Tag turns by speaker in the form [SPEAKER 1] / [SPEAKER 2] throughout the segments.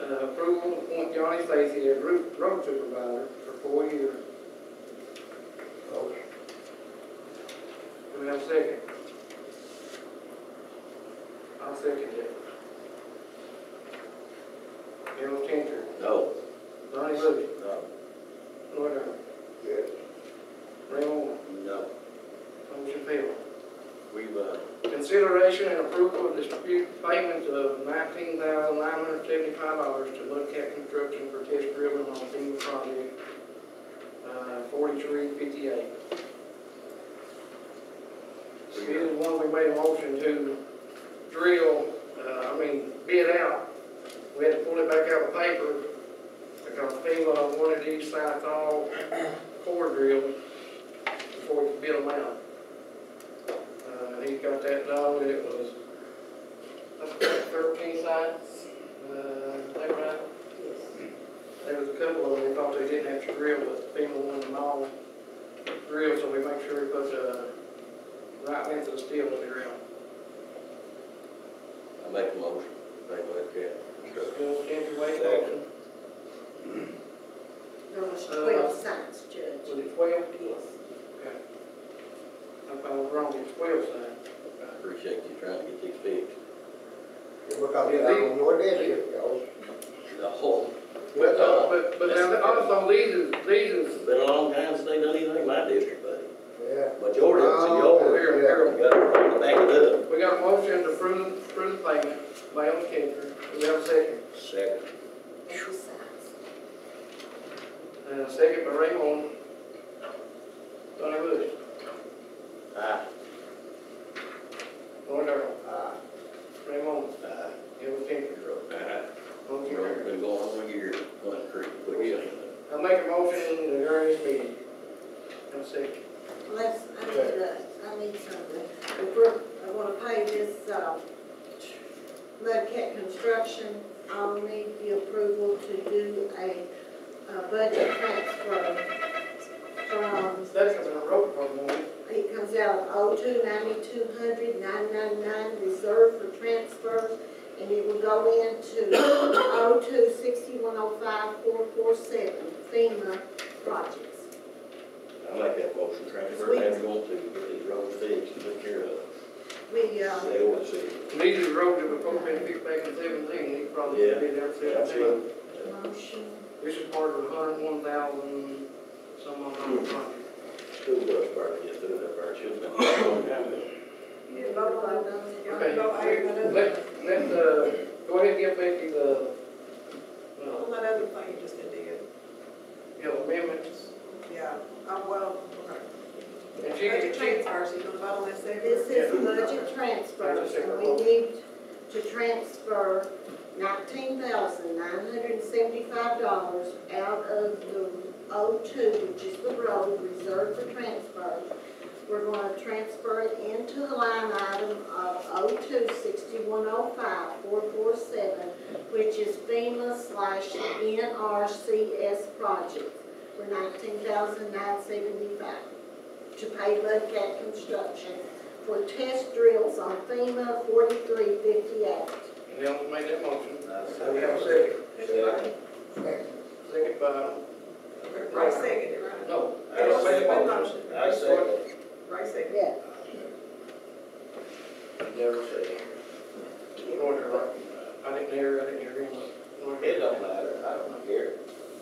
[SPEAKER 1] uh, approval to appoint Johnny Stacy as road road supervisor for four years. Do we have a second? I'll second it. Gerald Changer,
[SPEAKER 2] No.
[SPEAKER 1] Donnie Bush,
[SPEAKER 2] No.
[SPEAKER 1] Lord Earl,
[SPEAKER 2] Yes.
[SPEAKER 1] Ray Moore,
[SPEAKER 2] No.
[SPEAKER 1] motion failed.
[SPEAKER 2] We've, uh,
[SPEAKER 1] Consideration and approval of dispute payment of nineteen thousand nine hundred seventy-five dollars to Mudcat Construction for test drilling on FEMA project, uh, forty-three fifty-eight. This is one we made a motion to drill, uh, I mean, bid out. We had to pull it back out of paper because FEMA wanted each side all core drilled before we could bid them out. Uh, he got that done, and it was, I think thirteen sites, uh, they were out. There was a couple of them, they thought they didn't have to drill, but FEMA wanted them all drilled, so we make sure we put, uh, right length of steel in the ground.
[SPEAKER 2] I make a motion, make like that. Sure.
[SPEAKER 1] Bill, Andrew Wade,
[SPEAKER 2] Second.
[SPEAKER 1] motion.
[SPEAKER 3] There was twelve signs, Judge.
[SPEAKER 1] was it twelve?
[SPEAKER 3] Yes.
[SPEAKER 1] Okay. I thought I was wrong, it's twelve sites.
[SPEAKER 2] Appreciate you trying to get these fixed.
[SPEAKER 4] Because they don't know what it is, y'all.
[SPEAKER 2] The whole,
[SPEAKER 1] But, uh, but, but now, also, these is, these is,
[SPEAKER 2] it's been a long time since they done anything in my district, buddy.
[SPEAKER 4] Yeah.
[SPEAKER 2] Majority of it's in yours.
[SPEAKER 1] here, here.
[SPEAKER 2] You gotta back it up.
[SPEAKER 1] We got a motion to approve, approve the payment by Elm Cantor. Do we have a second?
[SPEAKER 2] Second.
[SPEAKER 3] Two signs.
[SPEAKER 1] And a second by Raymond. Donnie Bush,
[SPEAKER 2] Aye.
[SPEAKER 1] Lord Darrell,
[SPEAKER 4] Ah,
[SPEAKER 1] Raymond,
[SPEAKER 2] Aye.
[SPEAKER 1] Elm Cantor.
[SPEAKER 2] Aye.
[SPEAKER 1] Motion
[SPEAKER 2] We've
[SPEAKER 1] carried.
[SPEAKER 2] Uh-huh. been going on a year, one creek, what you saying?
[SPEAKER 1] I make a motion to adjourn this meeting. Have a second.
[SPEAKER 3] Let's, I need to, I need something. The group, I wanna pay this, uh, Mudcat Construction, I'll need the approval to do a, uh budget transfer from,
[SPEAKER 1] That's coming out of road department, won't it?
[SPEAKER 3] it comes out of oh two ninety-two hundred nine nine nine, reserved for transfers, and it will go into oh two sixty-one oh five four four seven FEMA projects.
[SPEAKER 2] I like that motion, trying to,
[SPEAKER 3] Sweet.
[SPEAKER 2] we're going to get these roads fixed and take care of it.
[SPEAKER 3] We, uh,
[SPEAKER 2] They always say,
[SPEAKER 1] These are roads that were probably fixed back in seventeen, these probably
[SPEAKER 2] Yeah.
[SPEAKER 1] been there for
[SPEAKER 2] yeah, I've
[SPEAKER 1] seventeen.
[SPEAKER 2] seen
[SPEAKER 3] motion.
[SPEAKER 1] This is part of a hundred and one thousand, some of them project.
[SPEAKER 2] school bus park, just doing that part, shouldn't have been a long time ago.
[SPEAKER 3] You vote on it.
[SPEAKER 1] Okay, let, let, uh, go ahead and give Becky the, uh,
[SPEAKER 5] Well, that other thing you just did,
[SPEAKER 1] you know, amendments,
[SPEAKER 5] yeah, I, well, okay.
[SPEAKER 1] and she can,
[SPEAKER 5] Budget
[SPEAKER 1] she,
[SPEAKER 5] transfers, you gonna vote on that second?
[SPEAKER 3] This is budget transfers, and we need to transfer nineteen thousand nine hundred and seventy-five dollars out of the O two, which is the road reserved for transfer. We're gonna transfer it into the line item of O two sixty-one oh five four four seven, which is FEMA slash NRCS project for nineteen thousand nine seventy-five to pay Mudcat Construction for test drills on FEMA forty-three fifty-eight.
[SPEAKER 1] and Ellen made that motion.
[SPEAKER 2] I've seen
[SPEAKER 1] So we have a
[SPEAKER 2] it.
[SPEAKER 1] second,
[SPEAKER 5] Everybody,
[SPEAKER 1] second by,
[SPEAKER 5] Ray seconded, right?
[SPEAKER 1] no,
[SPEAKER 2] I've
[SPEAKER 1] Ellen
[SPEAKER 2] seen
[SPEAKER 1] made
[SPEAKER 2] it.
[SPEAKER 1] the motion.
[SPEAKER 2] I second.
[SPEAKER 5] Ray seconded.
[SPEAKER 3] Yeah.
[SPEAKER 2] Never say.
[SPEAKER 1] Order, right. I didn't hear, I didn't hear him.
[SPEAKER 2] It don't matter, I don't care.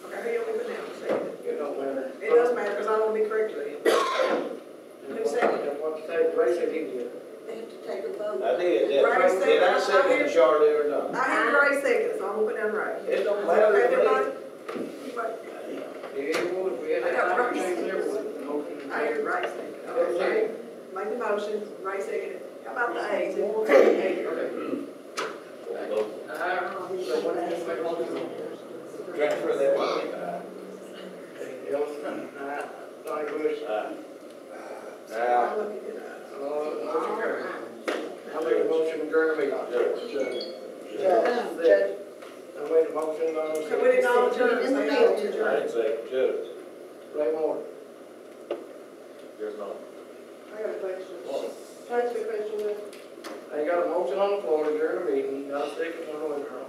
[SPEAKER 5] Okay, he only went down and seconded.
[SPEAKER 1] It don't matter.
[SPEAKER 5] It does matter, because I want to be correct with him. Who seconded?
[SPEAKER 1] That's what you said, Ray said he did.
[SPEAKER 3] They have to take a vote.
[SPEAKER 2] I did,
[SPEAKER 5] Right,
[SPEAKER 2] that,
[SPEAKER 5] so
[SPEAKER 2] did
[SPEAKER 5] I-
[SPEAKER 2] I
[SPEAKER 5] I
[SPEAKER 2] second
[SPEAKER 5] did-
[SPEAKER 2] Charlie or not?
[SPEAKER 5] I had Ray seconded, so I'm gonna put down Ray.
[SPEAKER 2] It don't
[SPEAKER 5] Okay,
[SPEAKER 2] matter.
[SPEAKER 5] everybody?
[SPEAKER 1] Yeah, it would, we had that conversation there with the motion.
[SPEAKER 5] I had Ray seconded,
[SPEAKER 1] Okay.
[SPEAKER 5] okay, make the motion, Ray seconded. How about the A's? Okay.
[SPEAKER 1] Uh, so what did you make a motion on?
[SPEAKER 2] Transfer that money.
[SPEAKER 1] Okay, Ellen, uh, Donnie Bush,
[SPEAKER 2] Ah. Aye. Aye.
[SPEAKER 5] I'm looking at it.
[SPEAKER 1] uh, motion carried. I made a motion during the meeting.
[SPEAKER 3] Um, Judge,
[SPEAKER 1] I made a motion on
[SPEAKER 5] So we didn't all adjourn, so y'all adjourn.
[SPEAKER 2] I'd say, Judge.
[SPEAKER 1] Ray Moore.
[SPEAKER 2] There's no.
[SPEAKER 5] I got a question. Can I ask you a question?
[SPEAKER 1] I got a motion on the floor during the meeting, got a second one on the floor.